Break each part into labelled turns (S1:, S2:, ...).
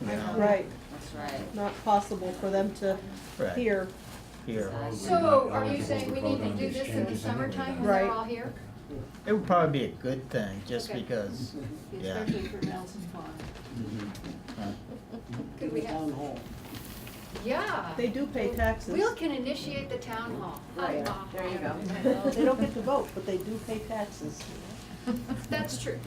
S1: you know,
S2: Right,
S3: That's right.
S2: not possible for them to
S1: Right.
S2: hear.
S1: here.
S4: So are you saying we need to do this in the summertime when
S2: Right.
S4: they're all here?
S1: It would probably be a good thing, just
S4: Okay.
S1: because, yeah.
S5: Especially for Nelson Farm.
S1: uh,
S4: Could we have,
S5: Town hall.
S4: yeah,
S2: They do pay taxes.
S4: Will can initiate the town hall.
S3: Right,
S4: Ha, ha,
S3: there you
S4: ha.
S3: go.
S2: They don't get to vote, but they do pay taxes.
S4: That's true.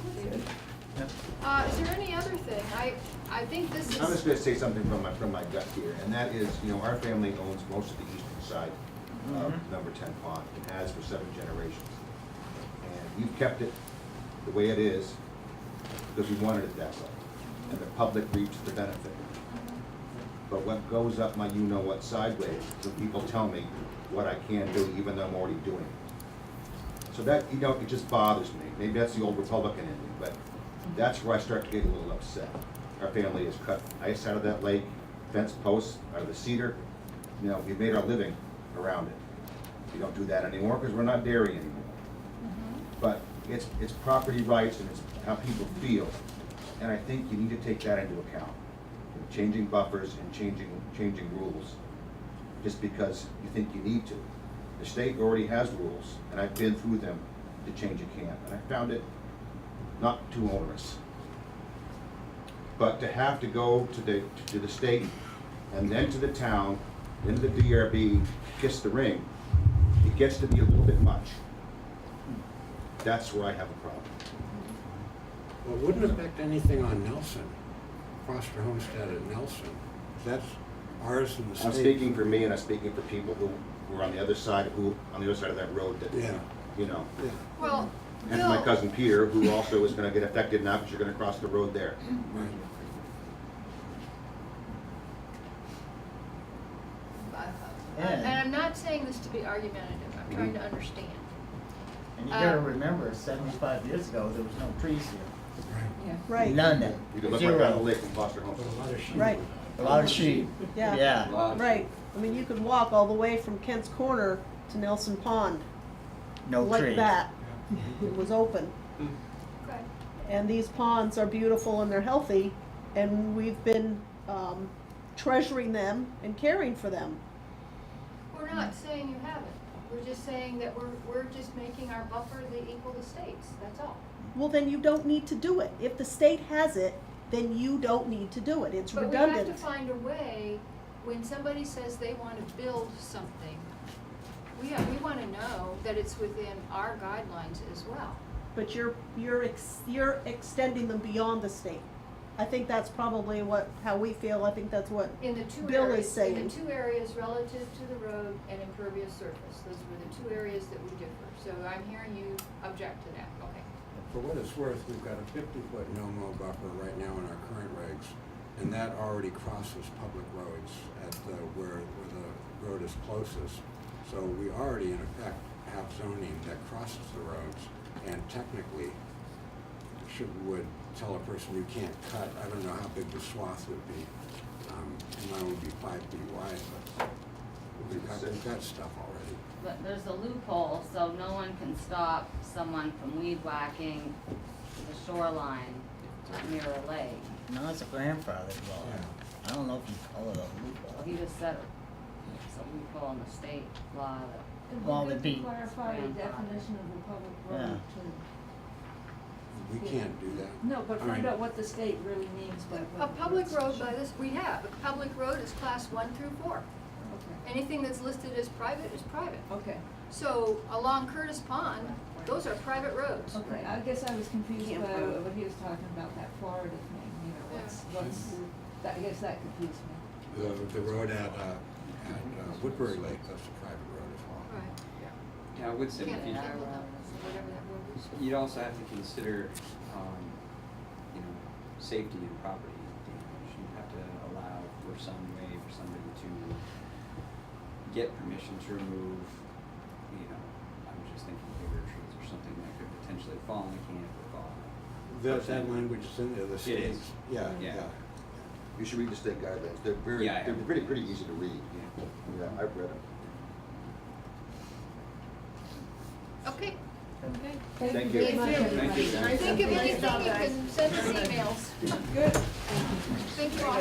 S1: Yep.
S4: Uh, is there any other thing? I, I think this
S6: I'm just
S4: is,
S6: gonna say something from my, from my gut here, and that is, you know, our family owns most of the eastern side of number ten pond, and has for seven generations. And we've kept it the way it is, because we wanted it that way, and the public reaps the benefit. But what goes up my you-know-what sideways, when people tell me what I can do, even though I'm already doing it. So that, you know, it just bothers me, maybe that's the old Republican in me, but that's where I start to get a little upset. Our family has cut ice out of that lake, fence posts out of the cedar, you know, we made our living around it. We don't do that anymore because we're not dairy anymore. But it's, it's property rights and it's how people feel, and I think you need to take that into account. Changing buffers and changing, changing rules, just because you think you need to. The state already has rules, and I've been through them to change a camp, and I found it not too onerous. But to have to go to the, to the state and then to the town, then to the DRB, kiss the ring, it gets to be a little bit much. That's where I have a problem.
S7: Well, it wouldn't affect anything on Nelson, Foster Homestead at Nelson. That's ours in the state.
S6: I'm speaking for me and I'm speaking for people who were on the other side, who, on the other side of that road that,
S7: Yeah,
S6: you know.
S7: yeah,
S4: well,
S6: And my
S4: Bill,
S6: cousin Peter, who also is gonna get affected now because you're gonna cross the road there.
S7: right.
S4: uh,
S1: Yeah.
S4: and I'm not saying this to be argumentative, I'm trying to understand.
S1: And you gotta
S4: Uh,
S1: remember, seventy-five years ago, there was no trees here.
S5: Yeah.
S2: Right.
S1: None, zero.
S6: You can look right down the lake from Foster Home.
S7: With a lot of sheep.
S2: Right.
S1: A lot of sheep,
S2: Yeah.
S1: yeah.
S2: Right, I mean, you could walk all the way from Kent's Corner to Nelson Pond,
S1: No trees.
S2: like that. It was open.
S4: Okay.
S2: And these ponds are beautiful and they're healthy, and we've been um, treasuring them and caring for them.
S4: We're not saying you haven't, we're just saying that we're, we're just making our buffer the equal to states, that's all.
S2: Well, then you don't need to do it. If the state has it, then you don't need to do it. It's
S4: But we have to
S2: redundant.
S4: find a way, when somebody says they wanna build something, we, have- we wanna know that it's within our guidelines as well.
S2: But you're, you're, ex- you're extending them beyond the state. I think that's probably what, how we feel. I think that's what,
S4: In the two
S2: Bill is
S4: areas, in
S2: saying-
S4: the two areas relative to the road and impervious surface, those were the two areas that we differ. So I'm hearing you object to that, okay.
S7: For what it's worth, we've got a fifty-foot no-mow buffer right now in our current regs, and that already crosses public roads at the, where, where the road is closest. So we already in effect have zoning that crosses the roads, and technically should, would tell a person you can't cut, I don't know how big the swath would be. Um, mine would be five feet wide, but we've got, we've got stuff already.
S3: But there's a loophole, so no one can stop someone from weed whacking the shoreline at Mirror Lake.
S1: No, it's a grandfather law. I don't know if you call it
S3: Well,
S1: a
S3: he
S1: loophole.
S3: just said it's a loophole in the state law that
S1: Well, it'd be-
S5: Clarify the
S3: Yeah.
S5: definition of the public
S1: Yeah.
S5: road to,
S7: We can't do that.
S5: no, but
S7: I
S5: find
S7: mean-
S5: out what the state really means by
S4: A
S5: what.
S4: public road by this, we have, a public road is class one through four.
S5: Okay,
S4: Anything that's listed as private is private.
S5: okay,
S4: So along Curtis Pond, those are private roads.
S5: okay, I guess I was confused by
S3: Can't prove.
S5: what he was talking about, that Florida thing, you know, what's, what's, the- that, I guess that confused me.
S7: The, the road at, uh, at uh, Woodbury Lake, that's a private road as well.
S4: Right.
S8: Yeah, I would say,
S4: Can't
S8: if you-
S4: handle them, whatever that word is.
S8: you'd also have to consider, um, you know, safety and property damage. You'd have to allow for some way for somebody to get permission to remove, you know, I'm just thinking bigger trees or something that could potentially fall in the camp or fall.
S7: That, that language is in there, the states,
S8: is.
S7: yeah,
S8: Yeah.
S7: yeah.
S6: You should read the state guidelines, they're very,
S8: Yeah, I
S6: they're
S8: have.
S6: pretty, pretty easy to read.
S8: Yeah.
S6: Yeah, I've read them.
S4: Okay.
S6: Thank you.
S5: very much,
S4: Thank
S8: you.
S5: everybody.
S8: Thank you.
S4: Think of anything, you can send us emails.
S5: Good.
S4: Thank you all.